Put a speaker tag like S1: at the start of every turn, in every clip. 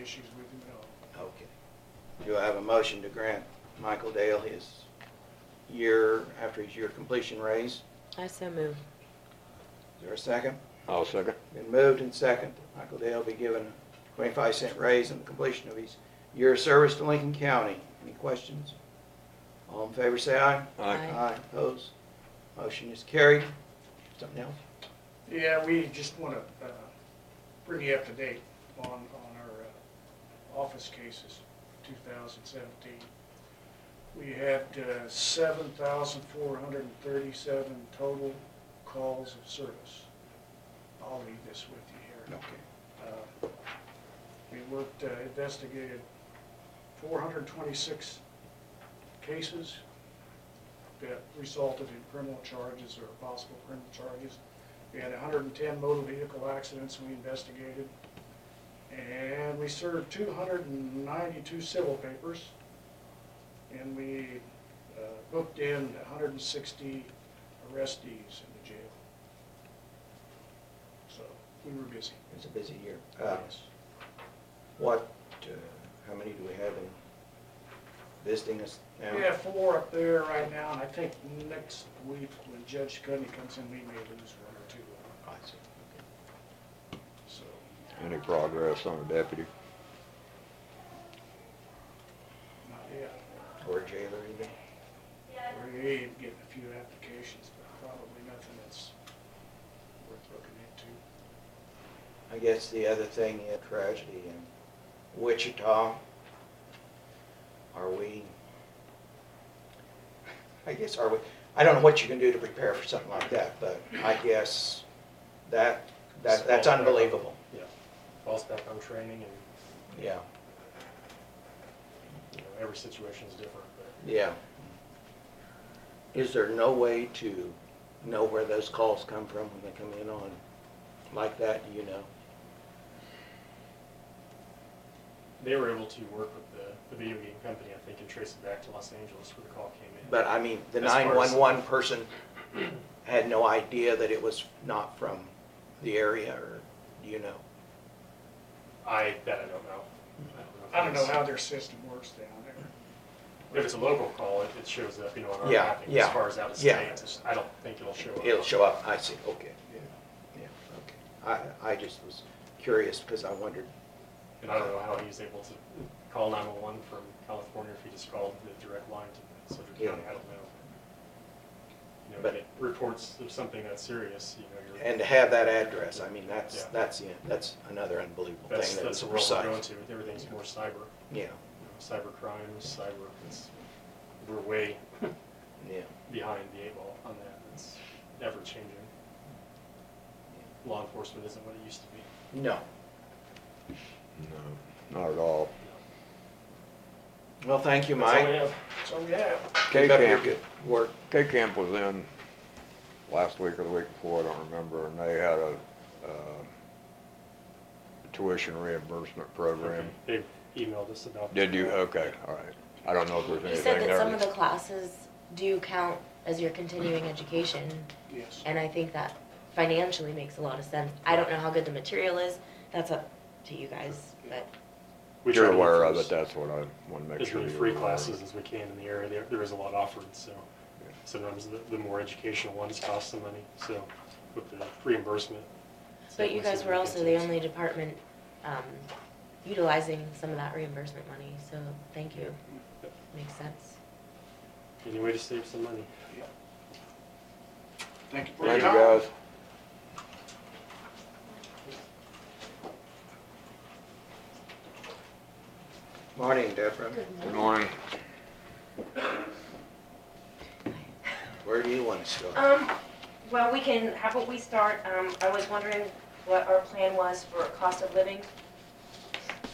S1: issues with him at all.
S2: Okay. Do I have a motion to grant Michael Dale his year, after his year completion raise?
S3: I so move.
S2: Is there a second?
S4: I'll second.
S2: Been moved and second. Michael Dale be given a twenty-five cent raise on the completion of his year of service to Lincoln County. Any questions? All in favor, say aye.
S3: Aye.
S2: Aye, opposed. Motion is carried. Something else?
S1: Yeah, we just want to bring you up to date on, on our uh, office cases, 2017. We had uh, 7,437 total calls of service. I'll leave this with you here.
S2: Okay.
S1: Uh, We worked, uh, investigated 426 cases that resulted in criminal charges or possible criminal charges. We had 110 motor vehicle accidents we investigated. And we served 292 civil papers. And we uh, booked in 160 arrestees in the jail. So we were busy.
S2: It's a busy year. Uh,
S1: Yes.
S2: What, uh, how many do we have in visiting us now?
S1: We have four up there right now, and I think next week when Judge Cuddy comes in, we may lose one or two,
S2: I see. Okay.
S1: so.
S4: Any progress on the deputy?
S1: Not yet.
S2: Or jailer even?
S1: We're getting a few applications, but probably nothing that's worth looking into.
S2: I guess the other thing, is tragedy in Wichita. Are we, I guess, are we, I don't know what you can do to prepare for something like that, but I guess that, that, that's unbelievable,
S5: Yeah, falls back on training and,
S2: yeah,
S5: you know, every situation's different, but
S2: yeah. Is there no way to know where those calls come from when they come in on, like that, do you know?
S5: they were able to work with the, the video game company, I think, and trace it back to Los Angeles where the call came in.
S2: But I mean, the
S5: As far as-
S2: nine-one-one person had no idea that it was not from the area, or, do you know?
S5: I, that I don't know. if
S1: I don't know
S5: it's-
S1: how their system works down there.
S5: If it's a local call, it, it shows up, you know, on our
S2: Yeah,
S5: mapping as
S2: yeah,
S5: far as out of state,
S2: yeah.
S5: it's- I don't think it'll show up.
S2: It'll show up, I see, okay,
S1: Yeah.
S2: yeah, okay. I, I just was curious, because I wondered,
S5: And I don't know how he was able to call nine-one-one from California if he just called the direct line to Sedgwick
S2: Yeah.
S5: County, I don't know. You know,
S2: But-
S5: when it reports of something that's serious, you know, you're.
S2: and to have that address, I mean, that's,
S5: Yeah.
S2: that's, the- that's another unbelievable thing.
S5: That's,
S2: that
S5: that's the
S2: it's
S5: world we're
S2: precise.
S5: going to, everything's more cyber,
S2: Yeah,
S5: cyber crimes, cyber, it's, we're way
S2: yeah.
S5: behind the eight ball on that, it's ever changing. Law enforcement isn't what it used to be.
S2: No,
S4: No, not at all.
S2: well, thank you,
S5: That's all we
S2: Mike.
S5: have.
S1: So, yeah,
S2: Keep up your
S4: K-Camp,
S2: good work.
S4: K-Camp was in last week or the week before, I don't remember, and they had a, uh, tuition reimbursement program.
S5: They emailed us about.
S4: Did you? Okay, all right. I don't know if there's
S3: You
S4: anything there.
S3: said that some of the
S4: that's-
S3: classes do count as your continuing education,
S1: yes.
S3: and I think that financially makes a lot of sense. I don't know how good the material is, that's up to you guys, but
S5: We try
S4: You're
S5: to get
S4: aware
S5: through
S4: of it,
S5: as-
S4: that's what I want to make
S5: As
S4: sure you're aware
S5: many
S4: of.
S5: free
S4: it.
S5: classes as we can in the area, there, there is a lot offered, so.
S4: Yeah.
S5: Sometimes the, the more educational ones cost some money, so with the reimbursement. it's
S3: But you
S5: definitely
S3: guys
S5: something
S3: were
S5: we can
S3: also the
S5: take.
S3: only department um, utilizing some of that reimbursement money, so thank you. Makes sense.
S5: Any way to save some money.
S1: Thank you for your
S4: Thank you,
S1: time.
S4: guys.
S2: Morning, Deborah.
S4: Good morning.
S2: Where do you want us to go?
S6: Um, well, we can, how about we start, um, I was wondering what our plan was for cost of living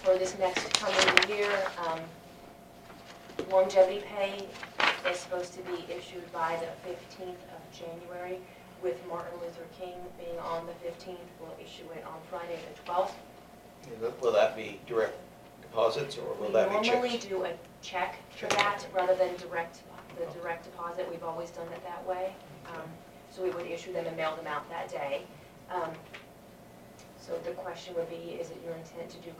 S6: for this next coming year. Um, Longevity pay is supposed to be issued by the fifteenth of January, with Martin Luther King being on the fifteenth. We'll issue it on Friday the twelfth.
S2: Will that be direct deposits, or
S6: We
S2: will that be
S6: normally
S2: checks?
S6: do a check for that rather than direct, the direct deposit. We've always done it that way. Um, So we would issue them and mail them out that day. Um, So the question would be, is it your intent to do